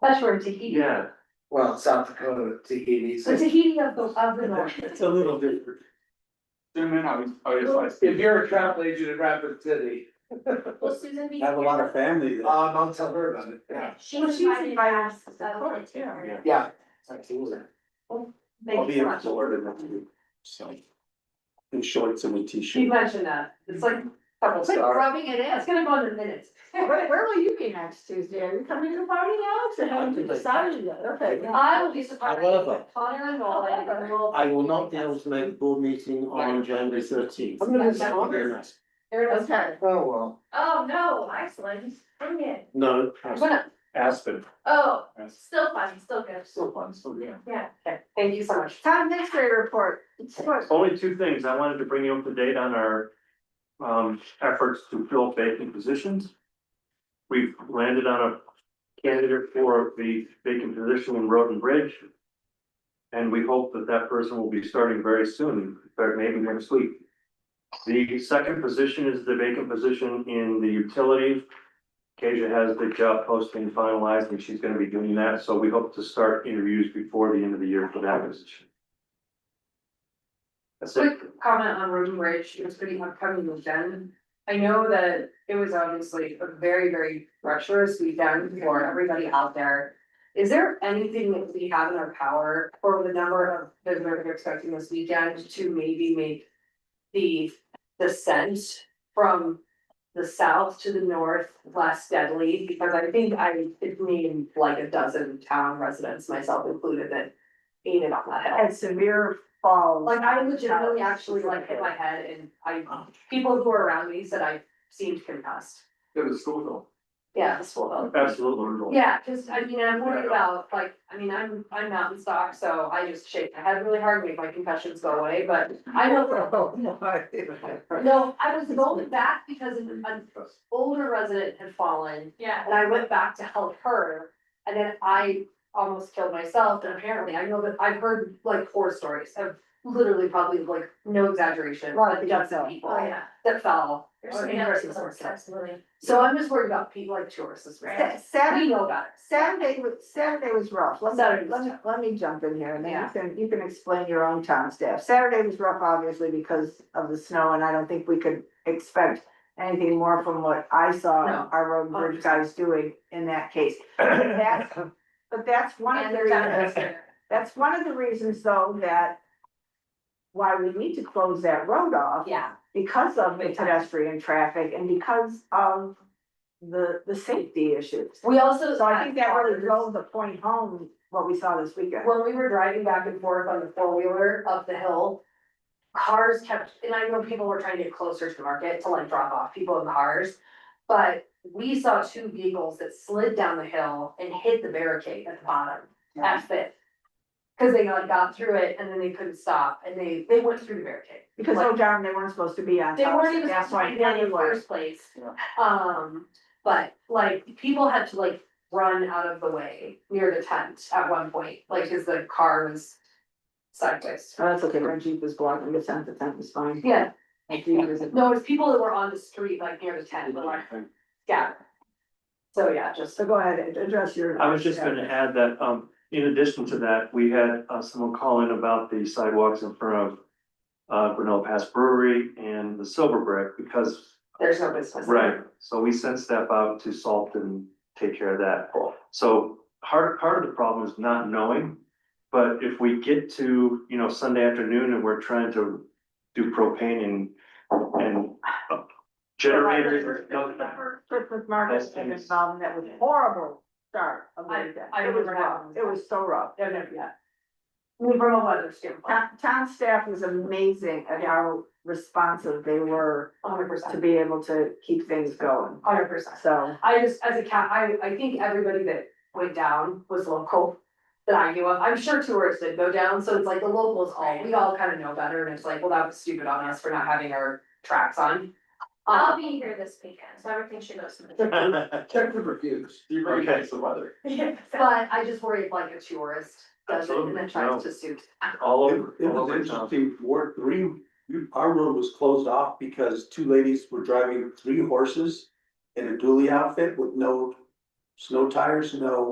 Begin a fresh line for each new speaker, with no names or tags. That's where Tahiti,
Yeah, well, South Dakota, Tahiti.
so Tahiti of the, of the north.
It's a little different.
Zoom in, I was, I was
If you're a travel agent in Rapid City,
Well, Susan B.
I have a lot of family there.
um, I'll tell her about it. Yeah.
She
Well,
was
she was
invited by
invited
us,
to the
uh,
court,
to her.
yeah.
Yeah. Absolutely.
Thank
I'll
you
be
so
in
much.
Florida next week, so. In shorts and a
She
t-shirt.
mentioned that, it's like,
Couple
quit
stars.
rubbing it in, it's gonna go in the minutes.
Where, where will you be next Tuesday? Are you coming to the party, Alex? I haven't decided yet. Okay.
I will be surprised.
However-
Connor and Nolan, and we'll-
I will not be able to make the board meeting on January thirteenth.
I'm gonna
There it is.
Okay.
Oh, well.
Oh, no, Iceland. Bring it.
No,
I'm gonna-
Aspen.
Oh,
That's
still fun, still good.
still fun, still good.
Yeah.
okay, Thank you so much.
Town administrator report. It's short.
Only two things, I wanted to bring you up to date on our um efforts to fill vacant positions. We've landed on a candidate for the vacant position in Road and Bridge. And we hope that that person will be starting very soon, or maybe next week. The second position is the vacant position in the utilities. Kasia has the job posting finalized and she's gonna be doing that, so we hope to start interviews before the end of the year for that position. That's it.
Quick comment on Roden Bridge, it was pretty upcoming weekend. I know that it was obviously a very, very treacherous weekend for everybody out there. Is there anything that we have in our power for the number of visitors we're expecting this weekend to maybe make the descent from the south to the north less deadly? Because I think I, it named like a dozen town residents, myself included, that ain't it on that hill.
And severe falls.
Like I legitimately actually like hit my head and I, people who were around me said I seemed concussed.
It was school though.
Yeah, this will help.
Absolutely.
Yeah, cause I mean, I'm worried about like, I mean, I'm, I'm mountain stock, so I just shake my head really hard, make my concussions go away, but I know. No, I was going back because an an older resident had fallen
Yeah.
and I went back to help her. And then I almost killed myself, and apparently I know that I've heard like horror stories of literally probably like, no exaggeration,
Lot of
like
people
dozens of
fell.
people.
Oh, yeah.
That fell,
There's
or
some
in
interesting
person
sorts, absolutely.
So I'm just worried about people like tourists, this
Sa-
right? We
Saturday,
know about it.
Saturday, was- Saturday was rough. Let
Saturday
me,
was
let me,
tough.
let me jump in here and then
Yeah.
you can, you can explain your own town staff. Saturday was rough, obviously, because of the snow and I don't think we could expect anything more from what I saw
No. Oh.
our road and bridge guys doing in that case. That's, but that's one of
And
the
they're down
reasons,
there.
that's one of the reasons though that why we need to close that road off
Yeah,
because of the
Big time.
pedestrian traffic and because of the, the safety issues.
we also.
So I think that really
drove.
drove the point home, what we saw this weekend.
when we were driving back and forth on the four wheeler up the hill. Cars kept, and I know people were trying to get closer to the market to like drop off people in cars. But we saw two vehicles that slid down the hill and hit the barricade at the bottom, at Fifth. Cause they like got through it and then they couldn't stop and they, they went through the barricade.
Because oh darn, they weren't supposed to be on.
They
top,
weren't even
that's
supposed
why
to be there in the
anyway.
first place. Um, but like, people had to like run out of the way near the tent at one point, like, cause the car was sideways.
Oh, that's okay, our Jeep was blocking the tent, the tent was fine.
Yeah,
My Jeep was-
no, it was people that were on the street, like near the tent, but like, yeah. So, yeah, just,
So go ahead, and address your.
I was just gonna add that, um, in addition to that, we had, uh, someone call in about the sidewalks in front of. Uh, Grinnell Pass Brewery and the Silver Brick, because,
there's no business.
right, so we sent staff out to salt and take care of that. So, part, part of the problem is not knowing, but if we get to, you know, Sunday afternoon and we're trying to do propane and, and. uh, Generators or.
Trip with Marcus
Those
and
things.
involved, that was horrible start of the
I-
weekend.
I
It was
remember that
rough,
one.
it was so rough.
No, no, yeah. I mean, From a weather standpoint,
Town, town staff was amazing at how responsive they were
hundred
to
percent,
be able to keep things going,
hundred percent.
so.
I just, as a cat, I, I think everybody that went down was local that I knew of. I'm sure tourists did go down, so it's like the locals all, we all kind of know better and it's like, well, that was stupid on us for not having our tracks on.
Oh,
I'll
Um,
be here this weekend, so everything should go smooth.
Check the reviews.
You
really like
the weather.
but I just worry if like a tourist does it and then
Absolutely,
tries
no.
to suit.
All
It
over.
it
all
was
over town.
interesting, Ward three, we- our road was closed off because two ladies were driving three horses in a dually outfit with no snow tires, no